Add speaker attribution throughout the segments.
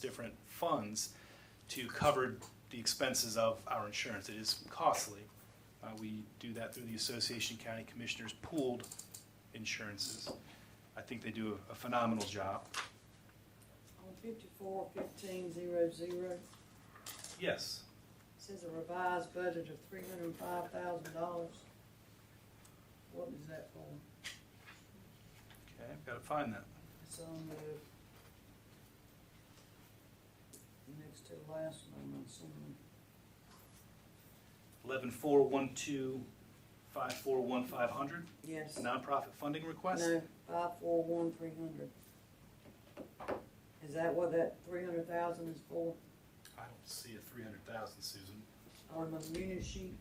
Speaker 1: different funds to cover the expenses of our insurance. It is costly. Uh, we do that through the Association of County Commissioners pooled insurances. I think they do a phenomenal job.
Speaker 2: On fifty-four fifteen zero zero,
Speaker 1: Yes.
Speaker 2: says a revised budget of three hundred and five thousand dollars. What is that for?
Speaker 1: Okay, I've gotta find that.
Speaker 2: It's on the next to the last one, I'm assuming.
Speaker 1: Eleven four one two five four one five hundred,
Speaker 2: Yes.
Speaker 1: nonprofit funding request?
Speaker 2: No, five four one three hundred. Is that what that three hundred thousand is for
Speaker 1: I don't see a three hundred thousand, Susan.
Speaker 2: on the unit sheet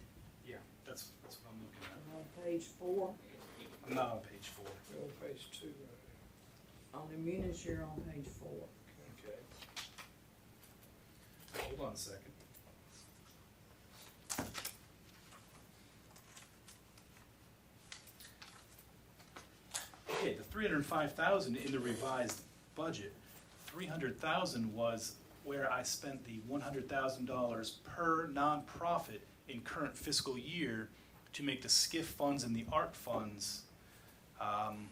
Speaker 1: Yeah, that's, that's what I'm looking at.
Speaker 2: on page four?
Speaker 1: I'm not on page four.
Speaker 3: We're on page two,
Speaker 2: On the unit share on page four.
Speaker 3: right? okay.
Speaker 1: Hold on a second. Okay, the three hundred and five thousand in the revised budget, three hundred thousand was where I spent the one hundred thousand dollars per nonprofit in current fiscal year to make the SCIF funds and the art funds, um,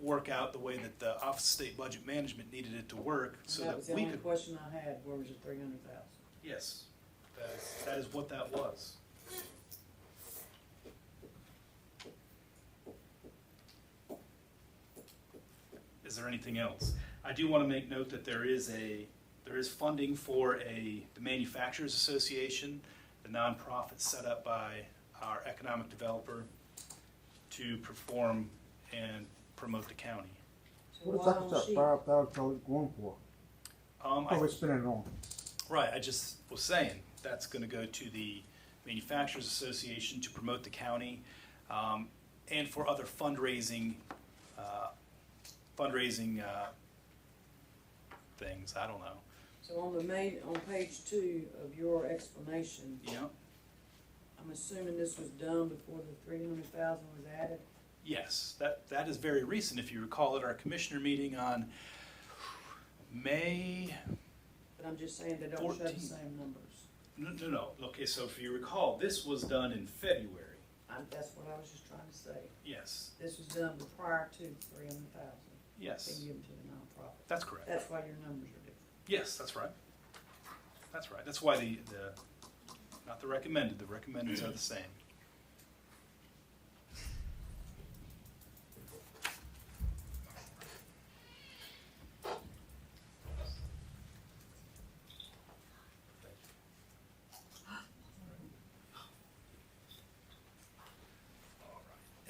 Speaker 1: work out the way that the Office of State Budget Management needed it to work, so
Speaker 2: That was
Speaker 1: that
Speaker 2: the
Speaker 1: we
Speaker 2: only
Speaker 1: could
Speaker 2: question I had, where was the three hundred thousand?
Speaker 1: Yes, that is, that is what that was. Is there anything else? I do want to make note that there is a, there is funding for a, the Manufacturers Association, the nonprofit set up by our economic developer to perform and promote the county.
Speaker 2: So
Speaker 4: What
Speaker 2: why
Speaker 4: is
Speaker 2: don't
Speaker 4: that
Speaker 2: she,
Speaker 4: five thousand dollars going for?
Speaker 1: Um, I
Speaker 4: What we spending it on?
Speaker 1: Right, I just was saying, that's gonna go to the Manufacturers Association to promote the county, um, and for other fundraising, uh, fundraising, uh, things, I don't know,
Speaker 2: so on the main, on page two of your explanation,
Speaker 1: you know?
Speaker 2: I'm assuming this was done before the three hundred thousand was added?
Speaker 1: Yes, that, that is very recent, if you recall at our commissioner meeting on May,
Speaker 2: But I'm just saying they don't show the
Speaker 1: 14.
Speaker 2: same numbers.
Speaker 1: no, no, no, okay, so if you recall, this was done in February,
Speaker 2: I, that's what I was just trying to say.
Speaker 1: yes,
Speaker 2: This was done prior to three hundred thousand
Speaker 1: yes,
Speaker 2: being given to the nonprofit.
Speaker 1: that's correct.
Speaker 2: That's why your numbers are different.
Speaker 1: Yes, that's right. That's right. That's why the, the, not the recommended, the recommendeds are the same.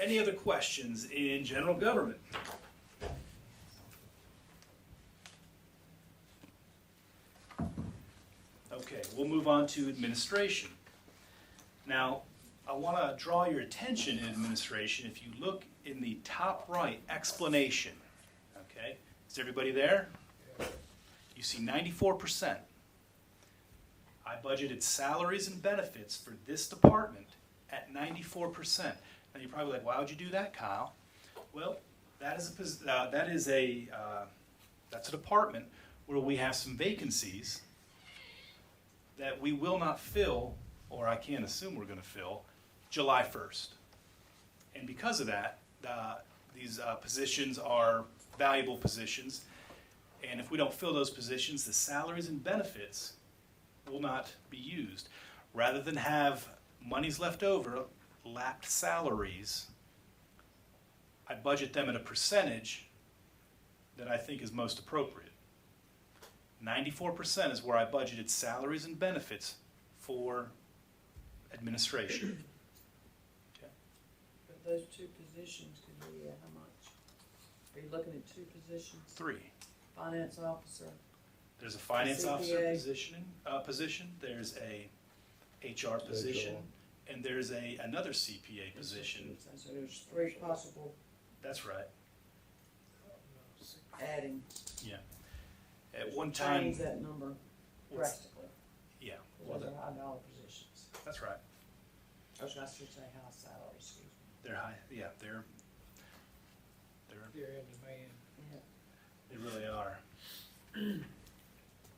Speaker 1: Any other questions in general government? Okay, we'll move on to administration. Now, I want to draw your attention in administration, if you look in the top right, explanation, okay? Is everybody there? You see ninety-four percent. I budgeted salaries and benefits for this department at ninety-four percent. Now, you're probably like, why would you do that, Kyle? Well, that is a, pos- uh, that is a, uh, that's a department where we have some vacancies that we will not fill, or I can't assume we're gonna fill, July first. And because of that, uh, these, uh, positions are valuable positions. And if we don't fill those positions, the salaries and benefits will not be used. Rather than have monies left over, lapped salaries, I budget them at a percentage that I think is most appropriate. Ninety-four percent is where I budgeted salaries and benefits for administration.
Speaker 2: But those two positions could be, uh, how much? Are you looking at two positions?
Speaker 1: Three,
Speaker 2: Finance officer,
Speaker 1: there's a finance officer
Speaker 2: CPA.
Speaker 1: positioning, uh, position, there's a HR position, and there's a, another CPA position,
Speaker 2: so there's three possible
Speaker 1: that's right.
Speaker 2: adding.
Speaker 1: At one time,
Speaker 2: Change that number
Speaker 1: what's-
Speaker 2: drastically,
Speaker 1: yeah, well,
Speaker 2: because
Speaker 1: that-
Speaker 2: they're high dollar positions.
Speaker 1: that's right,
Speaker 2: Or should I should say high salary, excuse me.
Speaker 1: they're high, yeah, they're, they're,
Speaker 3: You're in demand.
Speaker 1: they really are.